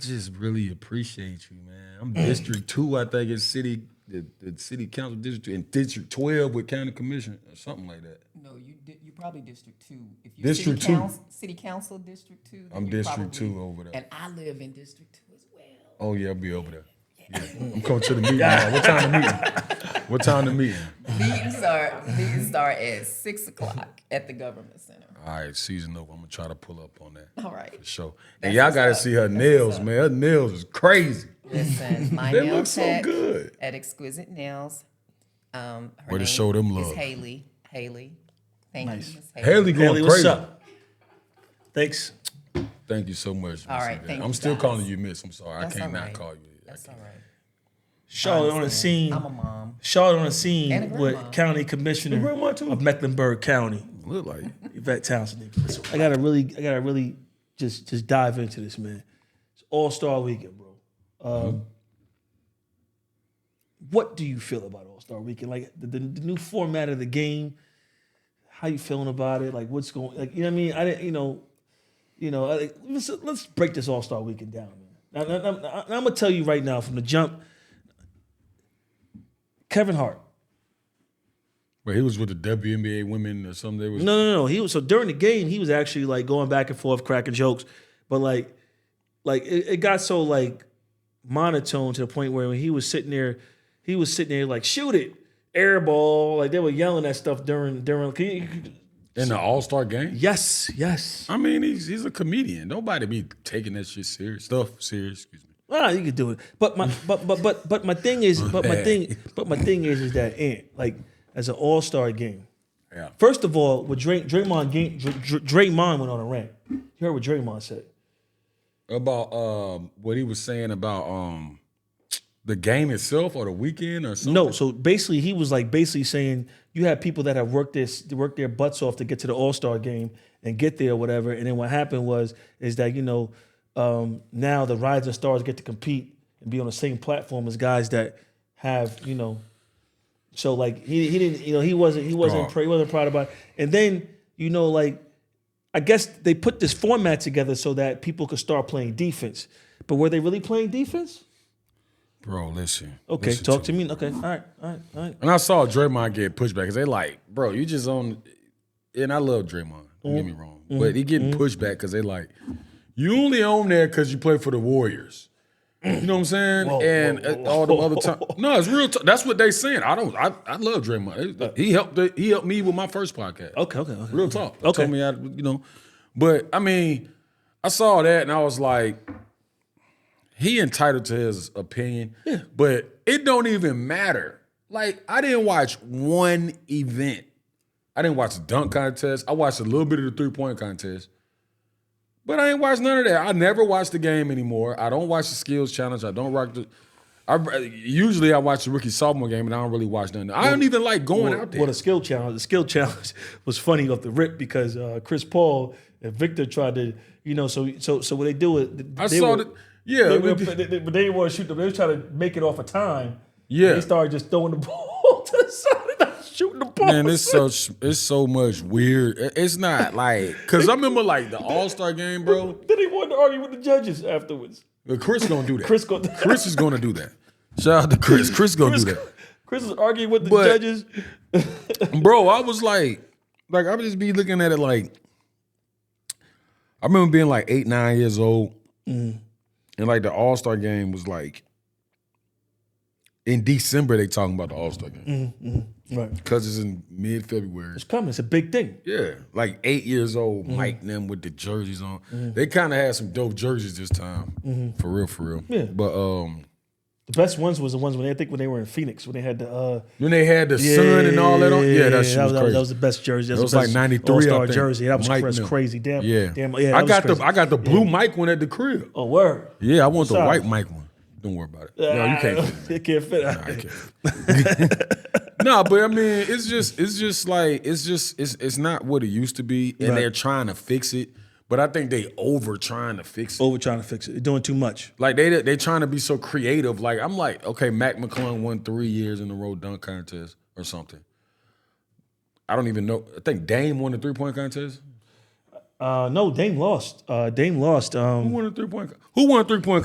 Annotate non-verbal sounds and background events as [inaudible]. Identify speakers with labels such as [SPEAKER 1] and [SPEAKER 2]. [SPEAKER 1] just really appreciate you, man. I'm
[SPEAKER 2] Mm.
[SPEAKER 1] District Two, I think it's City, the, the City Council District, and District Twelve with County Commission or something like that.
[SPEAKER 2] No, you di- you probably District Two. If you
[SPEAKER 1] District
[SPEAKER 2] city
[SPEAKER 1] two.
[SPEAKER 2] council, City Council District Two. then
[SPEAKER 1] I'm
[SPEAKER 2] you're
[SPEAKER 1] District
[SPEAKER 2] probably-
[SPEAKER 1] Two over there.
[SPEAKER 2] And I live in District Two as well.
[SPEAKER 1] Oh yeah, I'll be over there. Yeah. I'm coming to the meeting. Now. What time the meeting? What time the meeting?
[SPEAKER 2] [laughs] These are these are at six o'clock at the government center.
[SPEAKER 1] All right, season over. I'm gonna try to pull up on that.
[SPEAKER 2] All right.
[SPEAKER 1] for sure. And y'all gotta see her nails, man. Her nails is crazy.
[SPEAKER 2] Listen, my
[SPEAKER 1] They
[SPEAKER 2] nail
[SPEAKER 1] look so
[SPEAKER 2] tech
[SPEAKER 1] good.
[SPEAKER 2] at Exquisite Nails. Um, her
[SPEAKER 1] Way to
[SPEAKER 2] name
[SPEAKER 1] show them
[SPEAKER 2] is
[SPEAKER 1] love.
[SPEAKER 2] Haley. Haley. Thank you, Miss Haley.
[SPEAKER 1] Haley going
[SPEAKER 3] Haley,
[SPEAKER 1] crazy.
[SPEAKER 3] what's up? Thanks.
[SPEAKER 1] Thank you so much.
[SPEAKER 2] All
[SPEAKER 1] Miss
[SPEAKER 2] right,
[SPEAKER 1] Yvette.
[SPEAKER 2] thank
[SPEAKER 1] I'm
[SPEAKER 2] you,
[SPEAKER 1] still
[SPEAKER 2] guys.
[SPEAKER 1] calling you Miss. I'm sorry.
[SPEAKER 2] That's
[SPEAKER 1] I can't
[SPEAKER 2] all
[SPEAKER 1] not
[SPEAKER 2] right.
[SPEAKER 1] call you. I
[SPEAKER 2] That's all
[SPEAKER 1] can't.
[SPEAKER 2] right.
[SPEAKER 3] Charlotte on the scene.
[SPEAKER 2] I'm a mom.
[SPEAKER 3] Charlotte on the
[SPEAKER 2] And a
[SPEAKER 3] scene
[SPEAKER 2] grandma.
[SPEAKER 3] with County Commissioner
[SPEAKER 1] Grandma, too.
[SPEAKER 3] of Mecklenburg County,
[SPEAKER 1] Look like it.
[SPEAKER 3] Yvette Townsend. I gotta really, I gotta really just just dive into this, man. It's All Star Weekend, bro. Um, What do you feel about All Star Weekend? Like the, the, the new format of the game. How you feeling about it? Like what's going? Like you know what I mean? I didn't, you know, you know. I- like, let's let's break this All Star Weekend down, man. Now, now- now- now I'm gonna tell you right now from the jump. Kevin Hart.
[SPEAKER 1] But he was with the WNBA women or something. They was
[SPEAKER 3] No, no, no. He was so during the game, he was actually like going back and forth, cracking jokes, but like, like it, it got so like monotone to the point where when he was sitting there, he was sitting there like shoot it, air ball, like they were yelling that stuff during during. Can you,
[SPEAKER 1] in the All Star game.
[SPEAKER 3] yes, yes.
[SPEAKER 1] I mean, he's he's a comedian. Nobody be taking that shit serious. Stuff serious. Excuse me.
[SPEAKER 3] Well, you could do it, but my but but but but my thing is, but my thing, but my thing is, is that Ant like as an all star game.
[SPEAKER 1] Yeah.
[SPEAKER 3] First of all, with Dray, Draymond, game, Dr- Dr- Draymond went on a rant. You heard what Draymond said.
[SPEAKER 1] About um what he was saying about um the game itself or the weekend or something.
[SPEAKER 3] No, so basically he was like basically saying you have people that have worked this worked their butts off to get to the All Star game and get there or whatever, and then what happened was is that you know um, now the rising stars get to compete and be on the same platform as guys that have you know, so like he he didn't you know he wasn't he wasn't
[SPEAKER 1] Oh.
[SPEAKER 3] pr- he wasn't proud about it. and then you know like I guess they put this format together so that people could start playing defense, but were they really playing defense?
[SPEAKER 1] Bro, listen.
[SPEAKER 3] Okay,
[SPEAKER 1] Listen
[SPEAKER 3] talk to me. Okay, all right, all right, all right.
[SPEAKER 1] And I saw Draymond get pushed back because they like, bro, you just on. And I love Draymond. Don't get me wrong, but he getting pushed back because they like, you only on there because you play for the Warriors. You know what I'm saying? and uh, all them other time. No, it's real. T- that's what they saying. I don't. I, I love Draymond. It- He helped. He helped me with my first podcast.
[SPEAKER 3] Okay, okay, okay.
[SPEAKER 1] Real talk.
[SPEAKER 3] Mm-hmm. Okay.
[SPEAKER 1] Told me I, you know, but I mean, I saw that and I was like, he entitled to his opinion, but it don't even matter. Like I didn't watch one event. I didn't watch the dunk contest. I watched a little bit of the three point contest, but I ain't watched none of that. I never watch the game anymore. I don't watch the skills challenge. I don't rock the. I usually I watch the rookie sophomore game and I don't really watch nothing. I don't even like going
[SPEAKER 3] Well,
[SPEAKER 1] out there.
[SPEAKER 3] well, the skill challenge, the skill [laughs] challenge was funny off the rip because uh, Chris Paul and Victor tried to, you know, so so so what they do is th-
[SPEAKER 1] I
[SPEAKER 3] they
[SPEAKER 1] saw
[SPEAKER 3] were-
[SPEAKER 1] that. Yeah,
[SPEAKER 3] they
[SPEAKER 1] we
[SPEAKER 3] were-
[SPEAKER 1] did-
[SPEAKER 3] but they, they, but they didn't want to shoot them. They were trying to make it off a time.
[SPEAKER 1] Yeah.
[SPEAKER 3] they started just throwing the [laughs] ball to the side and not shooting the ball.
[SPEAKER 1] Man, it's so it's so much weird. It- It's not like because I remember like the All Star game, bro.
[SPEAKER 3] [laughs] then they wanted to argue with the judges afterwards.
[SPEAKER 1] But Chris gonna do that.
[SPEAKER 3] Chris go-
[SPEAKER 1] Chris is gonna do that. Shout out to Chris. Chris gonna
[SPEAKER 3] Chris,
[SPEAKER 1] do that,
[SPEAKER 3] Chris was arguing with the
[SPEAKER 1] But-
[SPEAKER 3] judges.
[SPEAKER 1] bro. I was like, like I would just be looking at it like. I remember being like eight, nine years old,
[SPEAKER 3] Mm-hmm.
[SPEAKER 1] and like the All Star game was like in December. They talking about the All Star game
[SPEAKER 3] Mm-hmm. Right,
[SPEAKER 1] because it's in mid February.
[SPEAKER 3] it's coming. It's a big thing.
[SPEAKER 1] Yeah, like eight years old, Mike and them with the jerseys on. They kind of had some dope jerseys this time, for real, for real.
[SPEAKER 3] Yeah.
[SPEAKER 1] But um,
[SPEAKER 3] The best ones was the ones when they I think when they were in Phoenix when they had the. Uh,
[SPEAKER 1] when they had the sun and all that on, yeah, that shit was
[SPEAKER 3] that,
[SPEAKER 1] crazy.
[SPEAKER 3] that was the best jersey. That,
[SPEAKER 1] That was like
[SPEAKER 3] best
[SPEAKER 1] 93, I
[SPEAKER 3] All-Star
[SPEAKER 1] think.
[SPEAKER 3] jersey. That was,
[SPEAKER 1] Mike
[SPEAKER 3] cra- that's
[SPEAKER 1] Miller.
[SPEAKER 3] crazy. Damn.
[SPEAKER 1] yeah,
[SPEAKER 3] Damn. Yeah.
[SPEAKER 1] I
[SPEAKER 3] that was
[SPEAKER 1] got
[SPEAKER 3] crazy.
[SPEAKER 1] the I got the blue mic one at the crib.
[SPEAKER 3] Oh word.
[SPEAKER 1] Yeah, I want the
[SPEAKER 3] Sorry.
[SPEAKER 1] white mic one. Don't worry about it. No, you
[SPEAKER 3] [laughs]
[SPEAKER 1] can't. fit it.
[SPEAKER 3] you can't fit.
[SPEAKER 1] I can't. no, but I mean, it's just it's just like it's just it's it's not what it used to be, and
[SPEAKER 3] Right.
[SPEAKER 1] they're trying to fix it. But I think they over trying to fix it.
[SPEAKER 3] Over trying to fix it. They're doing too much.
[SPEAKER 1] Like they they trying to be so creative. Like I'm like, okay, Mac McClung won three years in a row dunk contest or something. I don't even know. I think Dame won the three point contest.
[SPEAKER 3] Uh, no, Dame lost. um, Uh, Dame lost. Um,
[SPEAKER 1] Who won the three point? Who won the three point